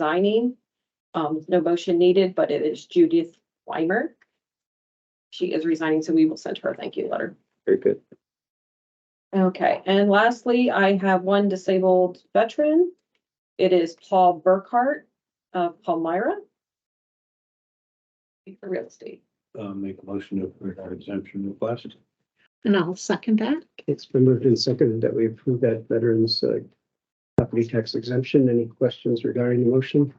resigning. Um, no motion needed, but it is Judith Weimer. She is resigning, so we will send her a thank you letter. Very good. Okay, and lastly, I have one disabled veteran. It is Paul Burkhart of Palmyra. For real estate. uh, make a motion to approve our exemption request. And I'll second that. It's been moved and seconded that we approve that veterans uh, property tax exemption. Any questions regarding the motion?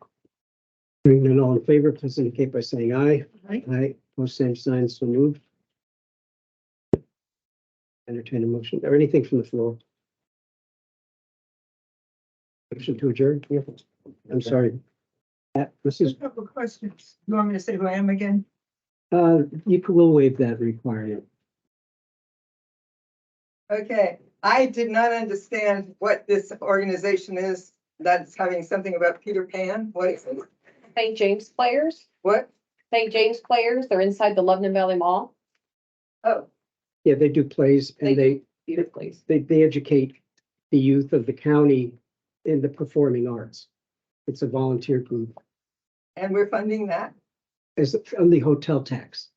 Hearing none, all in favor, please indicate by saying aye. Aye. Aye, Post same sign, so moved. Entertain a motion or anything from the floor. Motion to adjourn. Yeah. I'm sorry. Uh, Matt, Mrs. Just a couple of questions. You want me to say who I am again? Uh, you could- will waive that requirement. Okay, I did not understand what this organization is that's having something about Peter Pan. What is it? St. James Players, What? St. James Players, they're inside the Lebanon Valley Mall. Oh, Yeah, they do plays and they, Beautifully. they, they educate the youth of the county in the performing arts. It's a volunteer group. and we're funding that It's on the hotel tax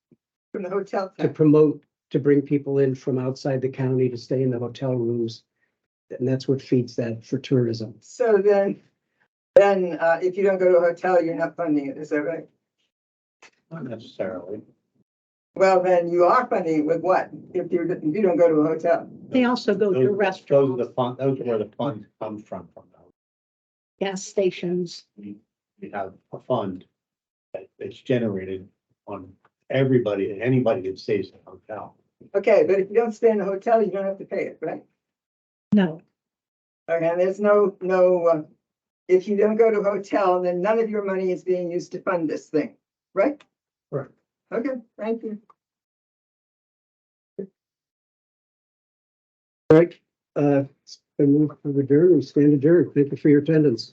from the hotel. to tax. promote, to bring people in from outside the county to stay in the hotel rooms. And that's what feeds that for tourism. So then, then uh, if you don't go to a hotel, you're not funding it, is that right? Not necessarily. Well, then you are funding it with what? If you, if you don't go to a hotel. They also go to Those- Those are restaurants, the fun, those are where the funds come from, from those. gas stations. We, we have a fund that, that's generated on everybody, anybody that stays in a hotel. Okay, but if you don't stay in a hotel, you don't have to pay it, right? No, Okay, and there's no, no, uh, if you don't go to a hotel, then none of your money is being used to fund this thing, right? Right. Okay, thank you. All right, uh, it's been moved to adjourn, we stand adjourned. Thank you for your attendance.